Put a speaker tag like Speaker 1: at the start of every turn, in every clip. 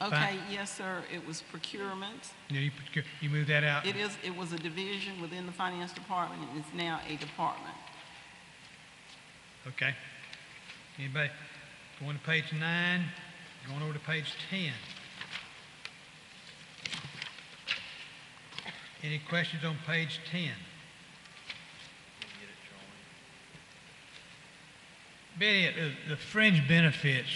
Speaker 1: Okay, yes, sir, it was procurement.
Speaker 2: Yeah, you, put- you move that out.
Speaker 1: It is, it was a division within the finance department, and it's now a department.
Speaker 2: Okay. Anybody going to page nine, going over to page ten? Any questions on page ten? Betty, the, the fringe benefits,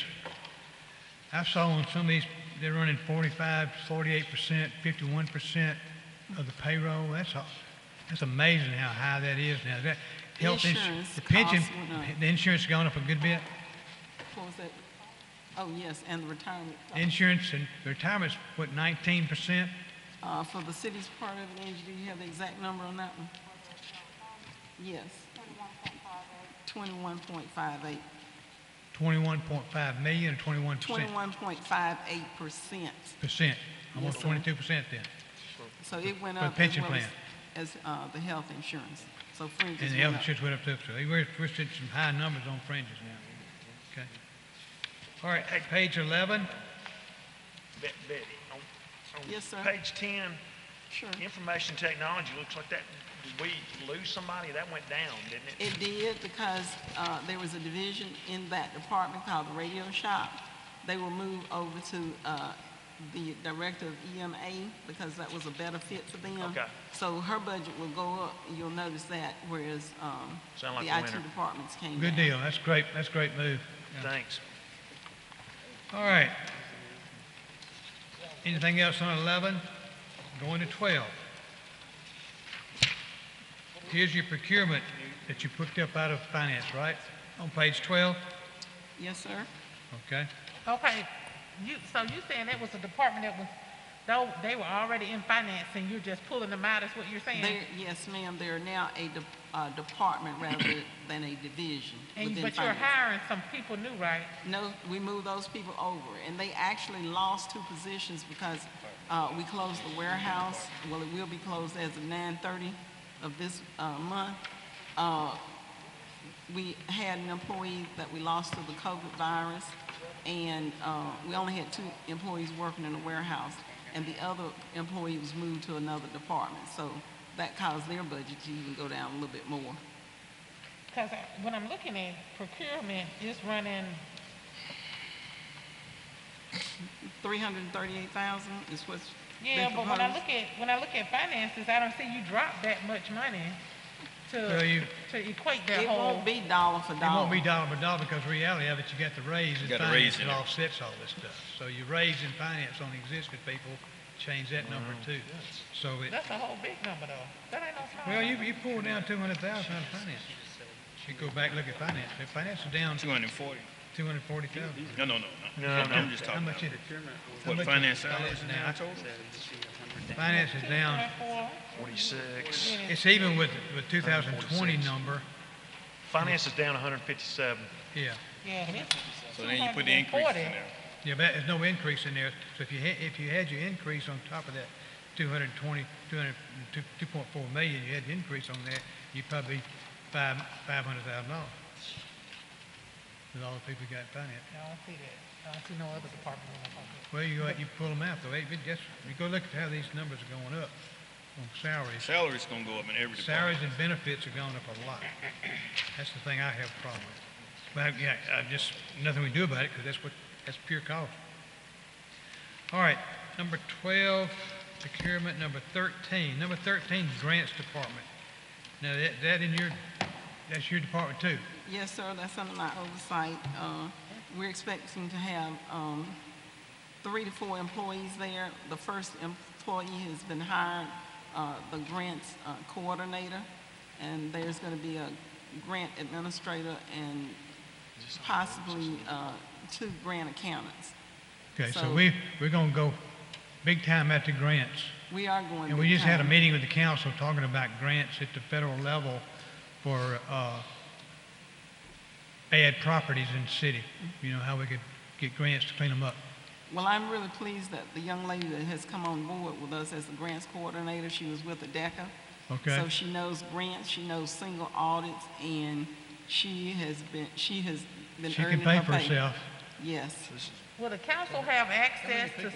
Speaker 2: I saw on some of these, they're running 45, 48 percent, fifty-one percent of the payroll. That's, a- that's amazing how high that is now. That health ins-
Speaker 1: Insurance
Speaker 2: the pension,
Speaker 1: costs went up.
Speaker 2: the insurance has gone up a good bit.
Speaker 1: What was that? Oh, yes, and the retirement,
Speaker 2: Insurance and retirement's, what, nineteen percent?
Speaker 1: uh, for the city's part of it, Angie, do you have the exact number on that one? Yes. Twenty-one point five eight.
Speaker 2: Twenty-one point five million or twenty-one percent?
Speaker 1: Twenty-one point five eight percent.
Speaker 2: Percent, almost
Speaker 1: sir.
Speaker 2: twenty-two percent then.
Speaker 1: So it went
Speaker 2: For
Speaker 1: up as
Speaker 2: pension
Speaker 1: well as,
Speaker 2: plan.
Speaker 1: as, uh, the health insurance. So fringes
Speaker 2: And the
Speaker 1: went
Speaker 2: health
Speaker 1: up.
Speaker 2: insurance went up too, so we're, we're seeing some high numbers on fringes now. Okay. All right, at page eleven,
Speaker 3: Be- Betty, on, on
Speaker 1: Yes, sir.
Speaker 3: page ten,
Speaker 1: Sure.
Speaker 3: information technology, looks like that, did we lose somebody? That went down, didn't
Speaker 1: It
Speaker 3: it?
Speaker 1: did because uh, there was a division in that department called the radio shop. They were moved over to uh, the director of EMA because that was a better fit for them.
Speaker 3: Okay.
Speaker 1: So her budget will go up, you'll notice that, whereas um,
Speaker 3: Sound like
Speaker 1: the
Speaker 3: a
Speaker 1: IT
Speaker 3: winner.
Speaker 1: departments came
Speaker 2: good
Speaker 1: down.
Speaker 2: deal, that's great, that's a great move.
Speaker 3: Thanks.
Speaker 2: All right. Anything else on 11? Going to 12. Here's your procurement that you picked up out of finance, right? On page 12?
Speaker 1: Yes, sir.
Speaker 2: Okay.
Speaker 4: Okay, you, so you saying that was a department that was, though, they were already in finance and you're just pulling them out, is what you're
Speaker 1: There,
Speaker 4: saying?
Speaker 1: yes, ma'am, they're now a de- uh, department rather than a division
Speaker 4: And,
Speaker 1: within
Speaker 4: but you're
Speaker 1: finance.
Speaker 4: hiring some people new, right?
Speaker 1: No, we moved those people over, and they actually lost two positions because uh, we closed the warehouse. Well, it will be closed as of 9:30 of this uh, month. Uh, We had an employee that we lost to the COVID virus, and uh, we only had two employees working in the warehouse, and the other employee was moved to another department. So that caused their budget to even go down a little bit more.
Speaker 4: Because when I'm looking at procurement, it's running,
Speaker 1: 338,000 is what's
Speaker 4: yeah,
Speaker 1: been
Speaker 4: but when I
Speaker 1: proposed.
Speaker 4: look at, when I look at finances, I don't see you drop that much money
Speaker 2: Well,
Speaker 4: to,
Speaker 2: you-
Speaker 4: to equate that
Speaker 1: It
Speaker 4: whole.
Speaker 1: won't be dollar for
Speaker 2: It won't
Speaker 1: dollar.
Speaker 2: be dollar for dollar because the reality of it, you got the raise in
Speaker 5: You got a
Speaker 2: finance
Speaker 5: raise in
Speaker 2: that
Speaker 5: it.
Speaker 2: offsets all this stuff. So you raise in finance on existing people, change that number too. So it,
Speaker 4: That's a whole big number though. That ain't no small.
Speaker 2: well, you,
Speaker 4: number.
Speaker 2: you pulled down 200,000 out of finance. You go back, look at finance. Their Finance is down
Speaker 5: 240.
Speaker 2: 240,000.
Speaker 5: No, no, no, no. I'm just
Speaker 2: How
Speaker 5: talking about
Speaker 2: much is it?
Speaker 5: what
Speaker 2: much is finance
Speaker 5: finance salaries
Speaker 2: now?
Speaker 5: now. I told you.
Speaker 2: Finance is down,
Speaker 4: 2.4.
Speaker 3: Forty-six.
Speaker 2: it's even with the 2020 number,
Speaker 3: Finance is down hundred and fifty-seven.
Speaker 2: yeah.
Speaker 4: Yeah, this.
Speaker 5: So then you put the increases
Speaker 4: 240.
Speaker 5: in there.
Speaker 2: Yeah, but there's no increase in there, so if you, ha- if you had your increase on top of that 220, 200 2 2.4 million, you had the increase on that, you'd probably five, $500,000. With all the people you got finance.
Speaker 4: I don't see that. I don't see no other department in the budget.
Speaker 2: Well, you, go out, you pull them out, though, It- it just, you go look at how these numbers are going up on salaries.
Speaker 5: Salaries gonna go up in every department.
Speaker 2: Salaries and benefits are going up a lot. That's the thing I have a problem with. But, yeah, I just, nothing we do about it, because that's what, that's pure cost. All right, number twelve, procurement, number thirteen, number thirteen, grants department. Now, that, that in your, that's your department too.
Speaker 1: Yes, sir, that's under my oversight. Uh, We're expecting to have um, three to four employees there. The first employee has been hired, uh, the grants uh, coordinator, and there's going to be a grant administrator and possibly uh, two grant accountants.
Speaker 2: Okay, so
Speaker 1: So-
Speaker 2: we, we're gonna go big time at the grants.
Speaker 1: We are going to.
Speaker 2: And we just had a
Speaker 1: become-
Speaker 2: meeting with the council talking about grants at the federal level for uh, bad properties in the city. You know, how we could get grants to clean them up.
Speaker 1: Well, I'm really pleased that the young lady that has come on board with us as the grants coordinator, she was with ADECA.
Speaker 2: Okay.
Speaker 1: So she knows grants, she knows single audits, and she has been, she has been
Speaker 2: She
Speaker 1: earning
Speaker 2: can
Speaker 1: her
Speaker 2: pay for herself.
Speaker 1: Yes.
Speaker 4: Will the council have access to